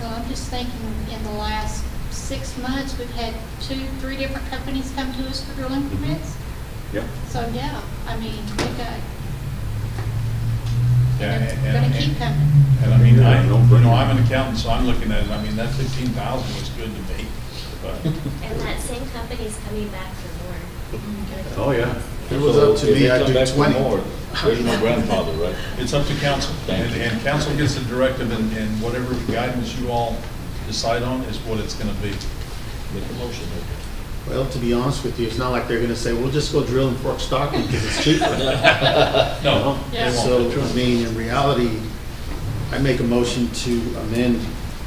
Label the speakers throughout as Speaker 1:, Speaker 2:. Speaker 1: Well, I'm just thinking, in the last six months, we've had two, three different companies come to us for drilling
Speaker 2: Mm-hmm.
Speaker 1: permits.
Speaker 3: Yep.
Speaker 1: So, yeah, I mean, we've got,
Speaker 2: Yeah,
Speaker 1: and
Speaker 2: and-
Speaker 1: it's gonna
Speaker 2: and-
Speaker 1: keep coming.
Speaker 2: And I mean, I,
Speaker 3: No
Speaker 2: you
Speaker 3: brainer.
Speaker 2: know, I'm an accountant, so I'm looking at it, I mean, that fifteen thousand was good to me, but.
Speaker 4: And that same company's coming back for more.
Speaker 3: Oh, yeah.
Speaker 5: If it was up to
Speaker 6: So if
Speaker 5: me,
Speaker 6: they
Speaker 5: I'd
Speaker 6: come
Speaker 5: do
Speaker 6: back for
Speaker 5: twenty.
Speaker 6: more, There's no grandfather, right?
Speaker 2: It's up to council, and, and council gets the directive, and, and whatever guidance you all decide on is what it's gonna be.
Speaker 6: Make a motion.
Speaker 5: Well, to be honest with you, it's not like they're gonna say, we'll just go drill in Fort Stockton because it's cheaper.
Speaker 2: No, they
Speaker 1: Yeah.
Speaker 2: won't.
Speaker 5: So, I mean, in reality, I make a motion to amend,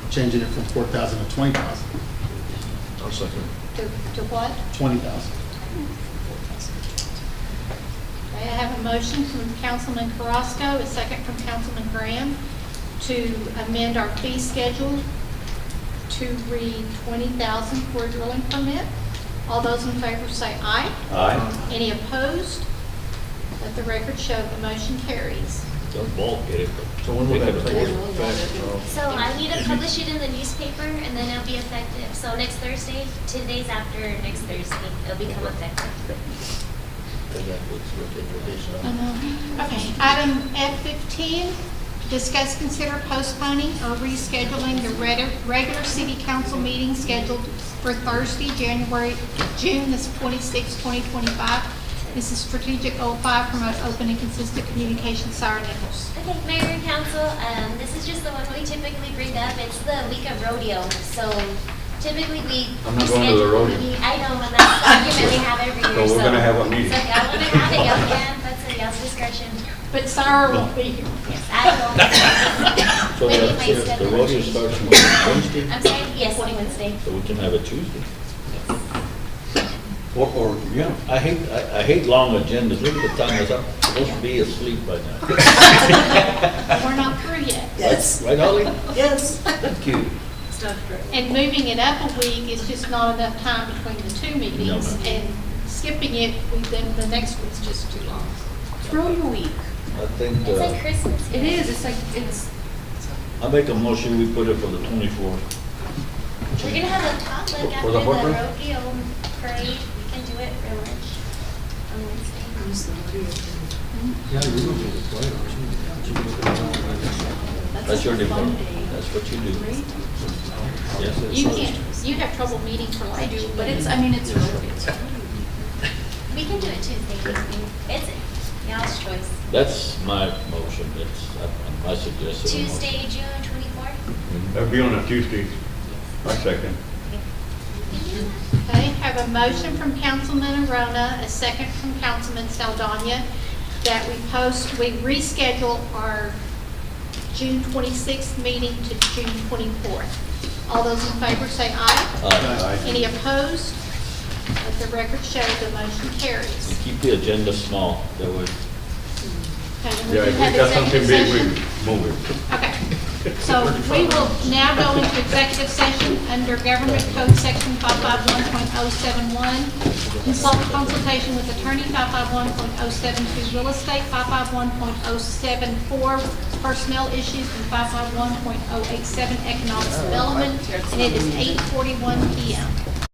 Speaker 5: changing it from four thousand to twenty thousand,
Speaker 6: I'll second.
Speaker 1: To, to what?
Speaker 5: twenty thousand.
Speaker 1: Okay, I have a motion from Councilman Carrasco, a second from Councilman Graham, to amend our fee schedule to read twenty thousand for a drilling permit. All those in favor say aye.
Speaker 3: Aye.
Speaker 1: Any opposed? Let the record show the motion carries.
Speaker 6: Don't bulk it. but
Speaker 3: So when will
Speaker 6: they
Speaker 3: that
Speaker 6: can
Speaker 3: take
Speaker 6: afford it.
Speaker 4: So I need to publish it in the newspaper and then it'll be effective. So next Thursday, two days after next Thursday, it'll become effective.
Speaker 6: And that was what they traditionally-
Speaker 1: Uh-huh. Okay, item F15, discuss, consider postponing or rescheduling the reg- regular city council meeting scheduled for Thursday, January, June, this 26, 2025. This is strategic 05, promote open and consistent communication, Sarah Nichols.
Speaker 4: Okay, Mayor and Council, um, this is just the one we typically bring up. It's the week of rodeo, so typically we.
Speaker 3: I'm not going to the rodeo.
Speaker 4: we- I know, but that's the argument we have every year, so.
Speaker 3: So we're gonna have a meeting.
Speaker 4: So if y'all wanna have it, y'all can, that's at y'all's discretion.
Speaker 1: But Sarah will be here.
Speaker 4: Yes, I will.
Speaker 6: So
Speaker 4: Maybe my
Speaker 6: the-
Speaker 4: schedule
Speaker 6: the
Speaker 4: will
Speaker 6: rodeo
Speaker 4: change.
Speaker 6: starts on Wednesday,
Speaker 4: I'm sorry, yes, on Wednesday.
Speaker 6: so we can have it Tuesday.
Speaker 3: Or, or, yeah.
Speaker 6: I hate, I, I hate long agendas. Look at the time, it's up, supposed to be asleep by now.
Speaker 1: We're not through yet.
Speaker 7: Yes,
Speaker 6: Right, Ollie?
Speaker 7: yes.
Speaker 6: Thank you.
Speaker 1: And moving it up a week is just not enough time between the two meetings.
Speaker 6: No, ma'am.
Speaker 1: And skipping it, we- then the next one's just too long.
Speaker 7: Throw your week.
Speaker 6: I think,
Speaker 4: It's like
Speaker 6: uh,
Speaker 4: Christmas.
Speaker 7: It
Speaker 4: here.
Speaker 7: is, it's like, it's,
Speaker 6: I make a motion, we put it for the twenty-fourth.
Speaker 4: We're gonna have a potluck
Speaker 3: For
Speaker 4: after
Speaker 3: the
Speaker 4: the
Speaker 3: horse race?
Speaker 4: rodeo parade. We can do it for lunch Um, on Wednesday.
Speaker 6: That's your department. That's what you do. Yes, it's-
Speaker 1: You can't, you have trouble meeting for like.
Speaker 7: I do, but it's, I mean, it's really, it's
Speaker 4: We can do it Tuesday evening. It's y'all's choice.
Speaker 6: That's my motion, that's uh, my suggestion.
Speaker 4: Tuesday, June twenty-fourth.
Speaker 3: That'd be on a Tuesday. I second.
Speaker 1: Okay, have a motion from Councilman Arona, a second from Councilman Saldana, that we post, we reschedule our June 26th meeting to June 24th. All those in favor say aye.
Speaker 6: Uh,
Speaker 1: Any opposed? Let the record show the motion
Speaker 6: you
Speaker 1: carries.
Speaker 6: Keep the agenda small, that way.
Speaker 1: Okay, then we
Speaker 3: Yeah,
Speaker 1: do
Speaker 3: if
Speaker 1: have
Speaker 3: we got something
Speaker 1: executive
Speaker 3: big, we
Speaker 1: session.
Speaker 3: move it.
Speaker 1: Okay, so we will now go into executive session under Government Code Section 551.071, consult consultation with attorney 551.072, real estate 551.074, personnel issues, and 551.087, economic development, and it is 8:41 PM.